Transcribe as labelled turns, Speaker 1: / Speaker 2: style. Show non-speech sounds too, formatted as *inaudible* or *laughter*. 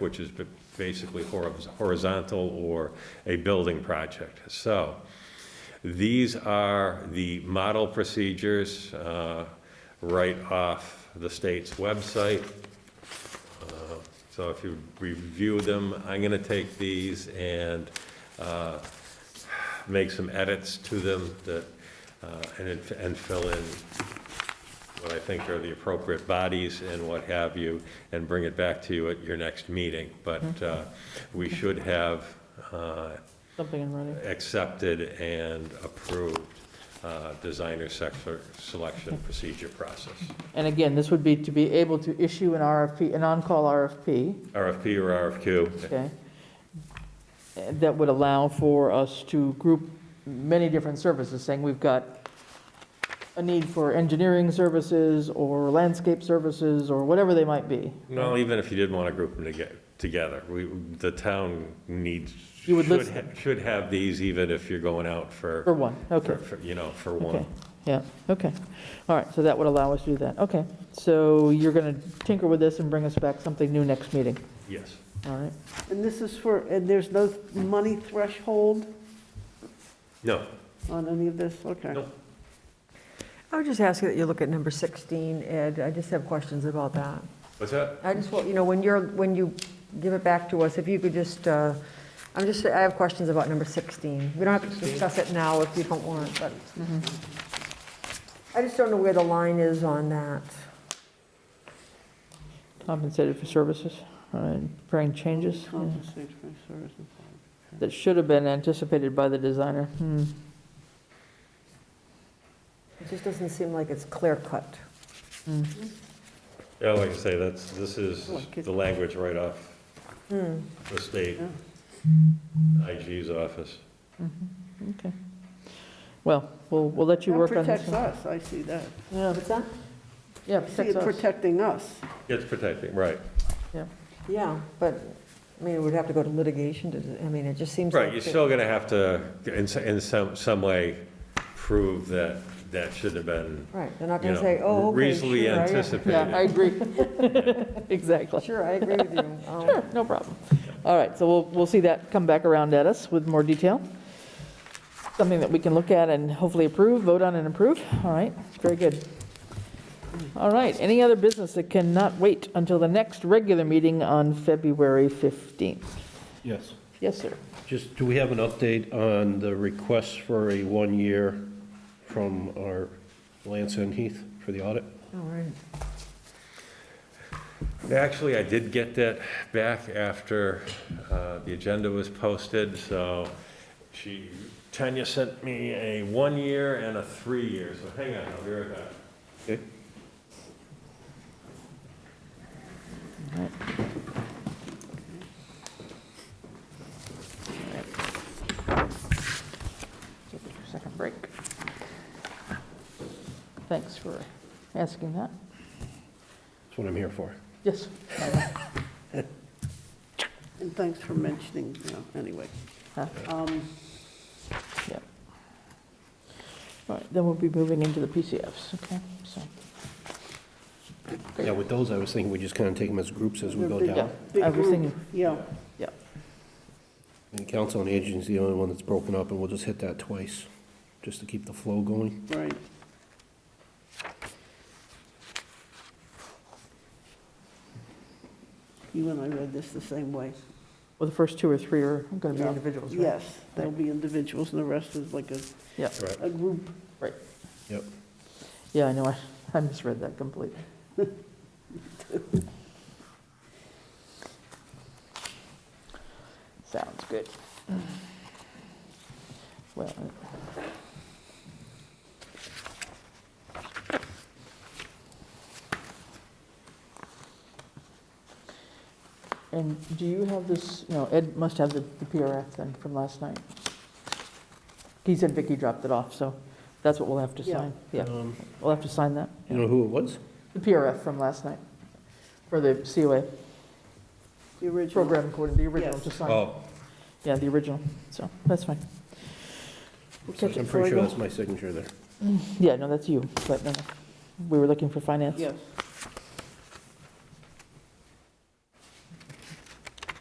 Speaker 1: which is b- basically hor- horizontal or a building project. So these are the model procedures uh, right off the state's website. Uh, So if you review them, I'm going to take these and uh, make some edits to them that, uh, and it- and fill in what I think are the appropriate bodies and what have you, and bring it back to you at your next meeting.
Speaker 2: Mm-hmm.
Speaker 1: But uh, we should have uh,
Speaker 2: Something in writing.
Speaker 1: accepted and approved uh, designer sector selection procedure process.
Speaker 2: And again, this would be to be able to issue an RFP, an on-call RFP,
Speaker 1: RFP or RFQ,
Speaker 2: okay? And That would allow for us to group many different services, saying we've got a need for engineering services or landscape services or whatever they might be.
Speaker 1: no, even if you did want to group them toge- together, we, the town needs,
Speaker 2: You would
Speaker 1: should
Speaker 2: list
Speaker 1: ha- should have these even if you're going out
Speaker 2: For
Speaker 1: for,
Speaker 2: one, okay.
Speaker 1: for- for, you know, for
Speaker 2: Okay,
Speaker 1: one.
Speaker 2: yeah, okay. All right, so that would allow us to do that. Okay, so you're going to tinker with this and bring us back something new next meeting,
Speaker 1: Yes.
Speaker 2: all right?
Speaker 3: And this is for, and there's no money threshold
Speaker 1: No,
Speaker 3: on any of this? Okay.
Speaker 1: Nope.
Speaker 4: I would just ask you that you look at number 16, Ed, I just have questions about that.
Speaker 1: what's that?
Speaker 4: I just want, you know, when you're, when you give it back to us, if you could just, uh, I'm just, I have questions about number 16. We don't have to discuss it now if you don't want, but I just don't know where the line is on that.
Speaker 2: Compensated for services, all right, preparing changes yeah,
Speaker 3: Compensate for service and quality.
Speaker 2: that should have been anticipated by the designer. Hmm.
Speaker 4: It just doesn't seem like it's clear cut.
Speaker 2: hmm,
Speaker 1: Yeah, like I say, that's, this is
Speaker 3: Like it-
Speaker 1: the language right off
Speaker 4: Hmm.
Speaker 1: the state IG's office.
Speaker 2: hmm, Okay. Well, we'll, we'll let you
Speaker 3: That
Speaker 2: work on this
Speaker 3: protects
Speaker 2: one.
Speaker 3: us, I see that.
Speaker 2: Yeah,
Speaker 4: What's that?
Speaker 2: Yeah,
Speaker 3: I See, it
Speaker 2: protects us.
Speaker 3: protecting us.
Speaker 1: It's protecting, right.
Speaker 4: Yeah, but, I mean, we'd have to go to litigation to, I mean, it just seems like.
Speaker 1: Right, you're
Speaker 4: it-
Speaker 1: still gonna have to, in, s- in some, some way, prove that that should have been,
Speaker 4: Right, they're not
Speaker 1: you
Speaker 4: going to say, oh,
Speaker 1: know,
Speaker 4: okay,
Speaker 1: reasonably
Speaker 4: sure, I-
Speaker 2: Yeah, I
Speaker 1: anticipated.
Speaker 2: agree. *laughs* Exactly.
Speaker 4: Sure, I agree with you. Um,
Speaker 2: Sure, no problem. All right, so we'll, we'll see that come back around at us with more detail. Something that we can look at and hopefully approve, vote on and approve. All right, very good. All right, any other business that cannot wait until the next regular meeting on February 15th?
Speaker 5: Yes.
Speaker 2: Yes, sir.
Speaker 5: Just, do we have an update on the request for a one-year from our Lance and Heath for the audit?
Speaker 4: All right.
Speaker 1: Actually, I did get that back after, uh, the agenda was posted, so she, Tanya sent me a one-year and a three-year, so hang on, I'll be right back.
Speaker 5: Okay.
Speaker 2: Second break. Thanks for asking that.
Speaker 5: That's what I'm here for.
Speaker 2: Yes.
Speaker 3: And thanks for mentioning, you know, anyway.
Speaker 2: Huh?
Speaker 3: Um,
Speaker 2: Yep. All right, then we'll be moving into the PCFs, okay? So,
Speaker 5: Yeah, with those, I was thinking we just kind of take them as groups as we
Speaker 3: they're
Speaker 5: go
Speaker 3: big-
Speaker 5: down.
Speaker 3: big
Speaker 2: I was
Speaker 3: group.
Speaker 2: thinking-
Speaker 3: Yeah,
Speaker 2: yeah.
Speaker 5: And Council on Aging is the only one that's broken up, and we'll just hit that twice, just to keep the flow going.
Speaker 3: right. You and I read this the same way.
Speaker 2: Well, the first two or three are going to be
Speaker 3: Yeah.
Speaker 2: individuals, right?
Speaker 3: Yes, there'll be individuals and the rest is like a,
Speaker 2: Yeah,
Speaker 5: Right.
Speaker 3: a group.
Speaker 5: Yep.
Speaker 2: yeah, I know, I- I misread that completely. *laughs* Sounds good. Well, uh, And do you have this, no, Ed must have the the PRF then from last night. He said Vicky dropped it off, so that's what we'll have to
Speaker 3: Yeah.
Speaker 2: sign. Yeah,
Speaker 5: Um,
Speaker 2: we'll have to sign that.
Speaker 5: You know who it was?
Speaker 2: The PRF from last night, for the COA
Speaker 3: The original.
Speaker 2: program coordinator, the original
Speaker 3: Yes.
Speaker 2: to sign.
Speaker 1: Oh,
Speaker 2: Yeah, the original, so that's fine. We'll catch it
Speaker 5: I'm
Speaker 2: before I
Speaker 5: pretty sure
Speaker 2: go.
Speaker 5: that's my signature there.
Speaker 2: Yeah, no, that's you, but no, no. we were looking for finance.
Speaker 3: Yes,